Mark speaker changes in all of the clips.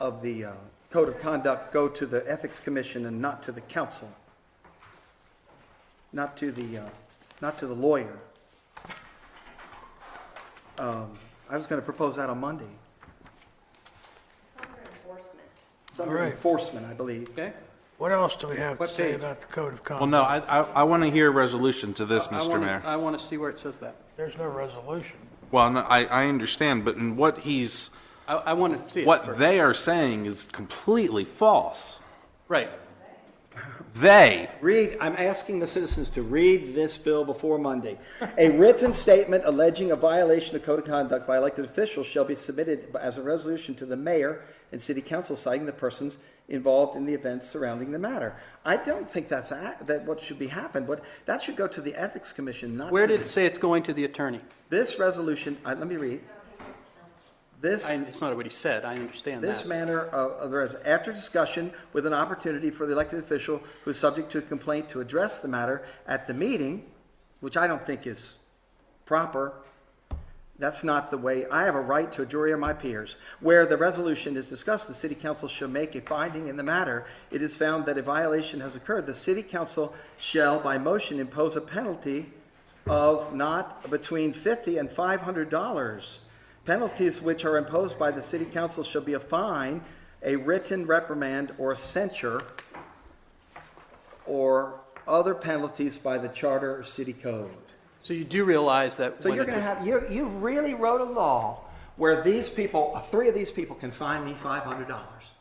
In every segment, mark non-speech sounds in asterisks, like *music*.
Speaker 1: of the uh, code of conduct go to the ethics commission and not to the council, not to the, uh, not to the lawyer. Um, I was going to propose that on Monday.
Speaker 2: Under enforcement.
Speaker 1: It's under
Speaker 3: All right.
Speaker 1: enforcement, I believe.
Speaker 4: Okay?
Speaker 3: What else do we have to
Speaker 1: What
Speaker 3: say
Speaker 1: page?
Speaker 3: about the code of
Speaker 5: Well,
Speaker 3: conduct?
Speaker 5: no, I, I, I want to hear a resolution to this,
Speaker 4: I
Speaker 5: Mr.
Speaker 4: wanna-
Speaker 5: Mayor.
Speaker 4: I want to see where it says that.
Speaker 3: There's no resolution.
Speaker 5: Well, no, I, I understand, but in what he's,
Speaker 4: I, I want to see it.
Speaker 5: what
Speaker 4: first.
Speaker 5: they are saying is completely false.
Speaker 4: Right.
Speaker 5: They,
Speaker 1: Read, I'm asking the citizens to read this bill before Monday. A written statement alleging a violation of code of conduct by elected officials shall be submitted as a resolution to the mayor and city council citing the persons involved in the events surrounding the matter. I don't think that's, a- that what should be happened, but that should go to the ethics commission, not to.
Speaker 4: Where did it say it's going to the attorney?
Speaker 1: This resolution, I- let me read. This.
Speaker 4: I, it's not what he said, I understand that.
Speaker 1: This manner of, of the res- after discussion with an opportunity for the elected official who is subject to a complaint to address the matter at the meeting, which I don't think is proper. That's not the way, I have a right to a jury of my peers. Where the resolution is discussed, the city council shall make a finding in the matter. It is found that a violation has occurred, the city council shall by motion impose a penalty of not between fifty and five hundred dollars. Penalties which are imposed by the city council shall be a fine, a written reprimand, or a censure, or other penalties by the charter or city code.
Speaker 4: So you do realize that
Speaker 1: So
Speaker 4: when
Speaker 1: you're
Speaker 4: it's,
Speaker 1: gonna
Speaker 4: a-
Speaker 1: have, you, you really wrote a law where these people, three of these people can fine me five hundred dollars.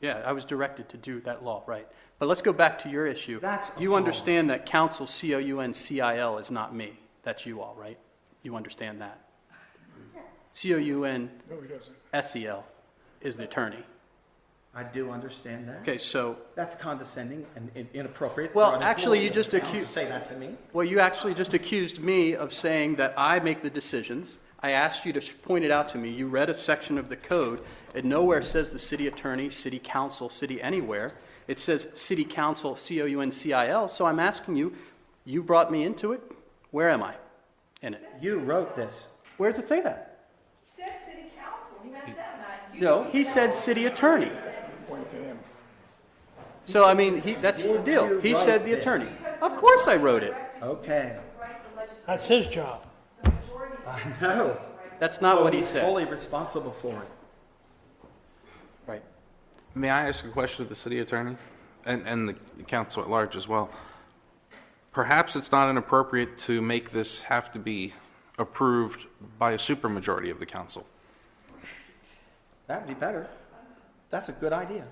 Speaker 4: yeah, I was directed to do that law, right. But let's go back to your issue.
Speaker 1: That's
Speaker 4: You
Speaker 1: appalling.
Speaker 4: understand that council, C-O-U-N-C-I-L is not me, that's you all, right? You understand that? C-O-U-N. S-E-L E is the attorney.
Speaker 1: I do understand that.
Speaker 4: Okay, so,
Speaker 1: That's condescending and in- inappropriate.
Speaker 4: Well,
Speaker 1: for an
Speaker 4: actually, you
Speaker 1: employee of
Speaker 4: just
Speaker 1: the town to
Speaker 4: accu-
Speaker 1: Say that to me.
Speaker 4: well, you actually just accused me of saying that I make the decisions. I asked you to sh- point it out to me. You read a section of the code. It nowhere says the city attorney, city council, city anywhere. It says city council, C-O-U-N-C-I-L. So I'm asking you, you brought me into it. Where am I in it?
Speaker 1: You wrote this.
Speaker 4: Where does it say that?
Speaker 2: He said city council, he meant them, not you.
Speaker 4: No, he said city attorney. So, I mean, he, that's the deal. He said the attorney. Of course I wrote it.
Speaker 1: Okay.
Speaker 3: That's his job.
Speaker 1: No.
Speaker 4: That's not what he said.
Speaker 1: Fully responsible for it.
Speaker 4: Right.
Speaker 5: may I ask a question of the city attorney and, and the council at large as well? Perhaps it's not inappropriate to make this have to be approved by a supermajority of the council.
Speaker 1: That'd be better. That's a good idea.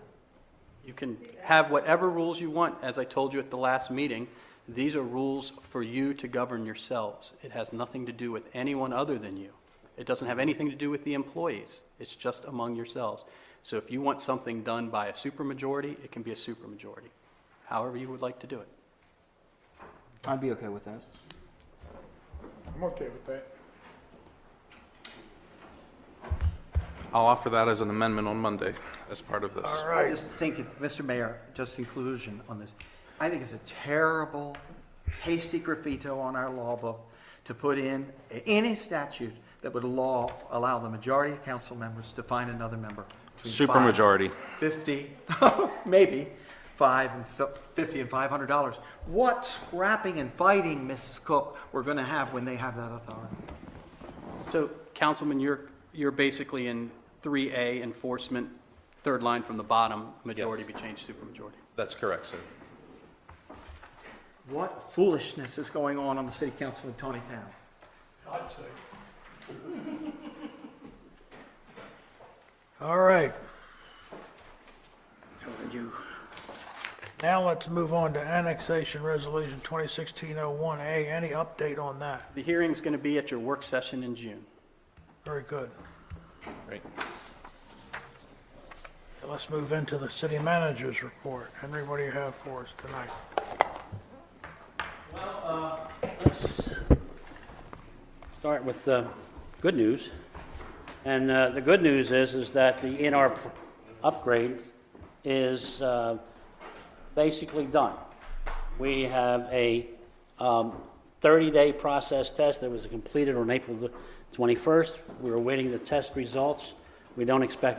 Speaker 4: You can have whatever rules you want. As I told you at the last meeting, these are rules for you to govern yourselves. It has nothing to do with anyone other than you. It doesn't have anything to do with the employees. It's just among yourselves. So if you want something done by a supermajority, it can be a supermajority, however you would like to do it.
Speaker 6: I'd be okay with that.
Speaker 7: I'm okay with that.
Speaker 5: I'll offer that as an amendment on Monday as part of this.
Speaker 3: All
Speaker 1: I
Speaker 3: right,
Speaker 1: just think, it- Mr. Mayor, just in conclusion on this, I think it's a terrible hasty graffito on our law book to put in a- any statute that would law, allow the majority of council members to find another member. between five-
Speaker 5: Supermajority.
Speaker 1: 50, *laughs* maybe, 5 and fif- 50 and 500 dollars. What scrapping and fighting, Mrs. Cook, we're going to have when they have that authority?
Speaker 4: So, Councilman, you're, you're basically in 3A enforcement, third line from the bottom, majority be changed supermajority.
Speaker 5: That's correct, sir.
Speaker 1: What foolishness is going on on the city council in Tony Town?
Speaker 3: all right.
Speaker 1: Telling you.
Speaker 3: Now let's move on to annexation resolution 2016-01A. Any update on that?
Speaker 4: The hearing's going to be at your work session in June.
Speaker 3: Very good.
Speaker 5: Great.
Speaker 3: Let's move into the city manager's report. Henry, what do you have for us tonight?
Speaker 8: start with uh, good news. And uh, the good news is, is that the NR pr- upgrade is uh, basically done. We have a um, 30-day process test that was completed on April the 21st. We We're awaiting the test results. We don't expect